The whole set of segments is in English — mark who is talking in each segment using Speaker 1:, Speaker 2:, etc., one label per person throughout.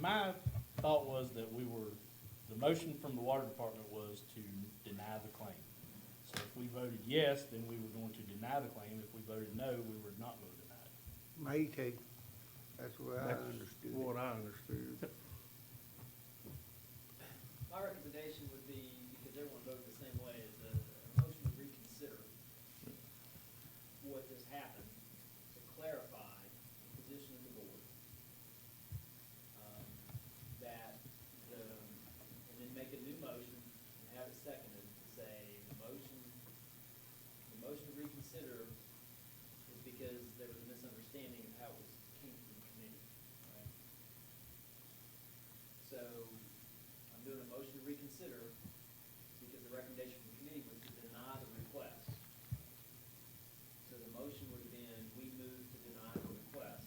Speaker 1: My thought was that we were, the motion from the water department was to deny the claim. So if we voted yes, then we were going to deny the claim. If we voted no, we were not going to deny it.
Speaker 2: May take, that's what I
Speaker 3: That's
Speaker 2: understood.
Speaker 3: what I understood.
Speaker 4: My recommendation would be, because everyone voted the same way, is a a motion to reconsider what has happened, to clarify the position of the board. Um, That, the and then make a new motion and have it seconded to say, the motion, the motion to reconsider is because there was a misunderstanding of how it was came from the committee, right? So I'm doing a motion to reconsider because the recommendation from the committee was to deny the request. So the motion would have been, we move to deny the request.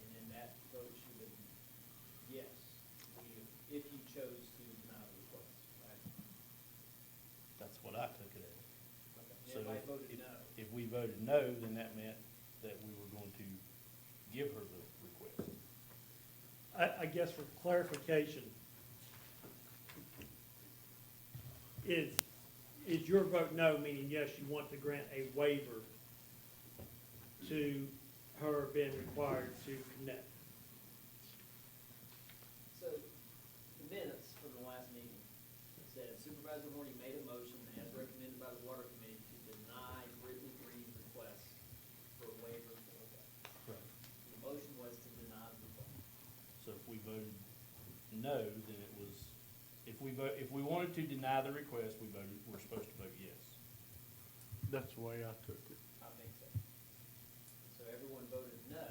Speaker 4: And then that vote should have been, yes, we- if you chose to deny the request, right?
Speaker 1: That's what I took it as.
Speaker 4: And
Speaker 1: So
Speaker 4: Everybody voted
Speaker 1: if-
Speaker 4: no.
Speaker 1: If we voted no, then that meant that we were going to give her the request.
Speaker 5: I, I guess for clarification, is, is your vote no, meaning yes, you want to grant a waiver to her being required to connect?
Speaker 4: So the minutes from the last meeting said Supervisor Horny made a motion as recommended by the Water Committee to deny Brittany Green's request for a waiver of OPEB.
Speaker 1: Right.
Speaker 4: The motion was to deny the request.
Speaker 1: So if we voted no, then it was, if we vote, if we wanted to deny the request, we voted, we're supposed to vote yes.
Speaker 3: That's the way I took it.
Speaker 4: I think so. So everyone voted no,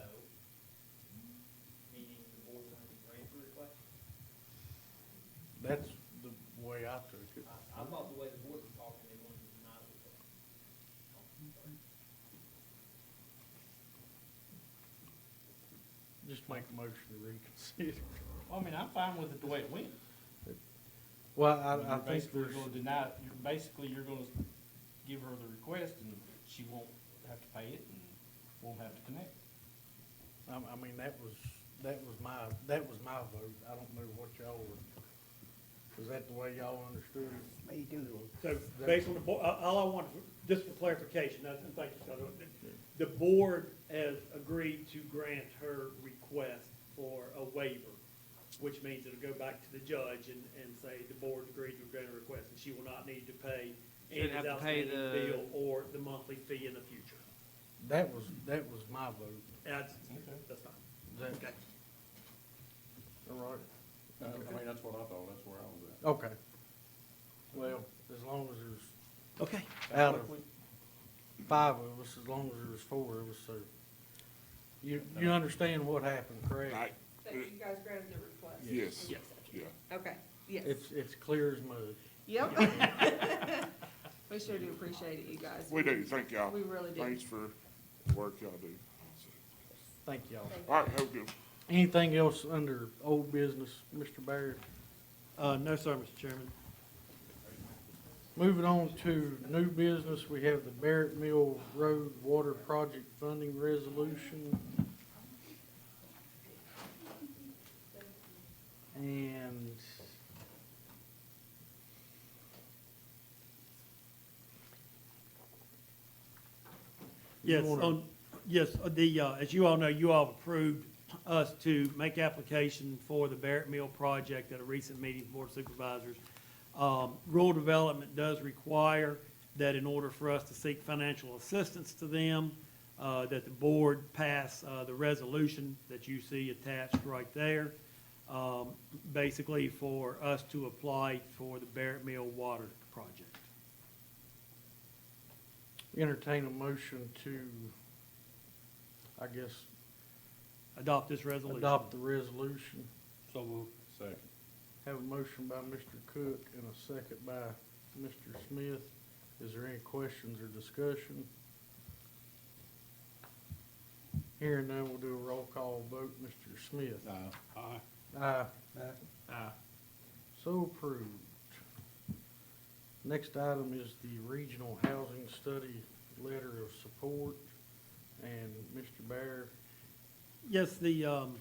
Speaker 4: meaning the board wanted to grant the request.
Speaker 3: That's the way I took it.
Speaker 4: I, I thought the way the board was talking, they wanted to deny the request.
Speaker 3: Just make a motion to reconsider.
Speaker 1: Well, I mean, I'm fine with it the way it went.
Speaker 3: Well,
Speaker 1: I mean, you're basically gonna deny, it. you're, basically, you're gonna give her the request, and she won't have to pay it, and won't have to connect.
Speaker 3: I, I mean, that was, that was my, that was my vote. I don't know what y'all were, was that the way y'all understood it?
Speaker 2: May do.
Speaker 5: So based on the, bo- uh, all I want, just for clarification, that's, and thank you, Scott. The board has agreed to grant her request for a waiver, which means it'll go back to the judge and, and say the board agreed to grant a request and she will not need to pay
Speaker 6: Shouldn't have
Speaker 5: Andy's
Speaker 6: to pay
Speaker 5: outstanding
Speaker 6: the-
Speaker 5: bill or the monthly fee in the future.
Speaker 3: That was, that was my vote.
Speaker 5: That's,
Speaker 1: Okay.
Speaker 5: that's fine.
Speaker 3: Is that- All right.
Speaker 7: I mean, that's what I thought, that's where I was at.
Speaker 3: Okay. Well, as long as there's
Speaker 5: Okay.
Speaker 3: out of five of us, as long as there was four of us, so. You, you understand what happened, correct?
Speaker 7: I,
Speaker 8: That you guys granted the request?
Speaker 7: Yes.
Speaker 8: Yes.
Speaker 7: yeah,
Speaker 8: Okay, yes.
Speaker 3: It's, it's clear as mud.
Speaker 8: Yep. We sure do appreciate it, you guys.
Speaker 7: we do, thank y'all.
Speaker 8: We really do.
Speaker 7: Thanks for the work y'all do.
Speaker 3: Thank y'all.
Speaker 8: Thank you.
Speaker 7: All right, have a good one.
Speaker 3: Anything else under old business, Mr. Barry?
Speaker 5: Uh, no, sir, Mr. Chairman.
Speaker 3: Moving on to new business, we have the Barrett Mill Road Water Project Funding Resolution. And
Speaker 5: Yes,
Speaker 3: You wanna-
Speaker 5: on, yes, uh, the, uh, as you all know, you all approved us to make application for the Barrett Mill project at a recent meeting of Board of Supervisors. Um, rural development does require that in order for us to seek financial assistance to them, uh, that the board pass, uh, the resolution that you see attached right there, um, basically for us to apply for the Barrett Mill water project.
Speaker 3: entertain a motion to, I guess,
Speaker 5: Adopt this resolution.
Speaker 3: adopt the resolution.
Speaker 1: So we'll.
Speaker 7: Second.
Speaker 3: Have a motion by Mr. Cook and a second by Mr. Smith. Is there any questions or discussion? Hearing none, we'll do a roll call vote. Mr. Smith? Aye.
Speaker 2: Aye.
Speaker 3: Aye. So approved. Next item is the Regional Housing Study Letter of Support. And Mr. Bear,
Speaker 5: Yes, the, um,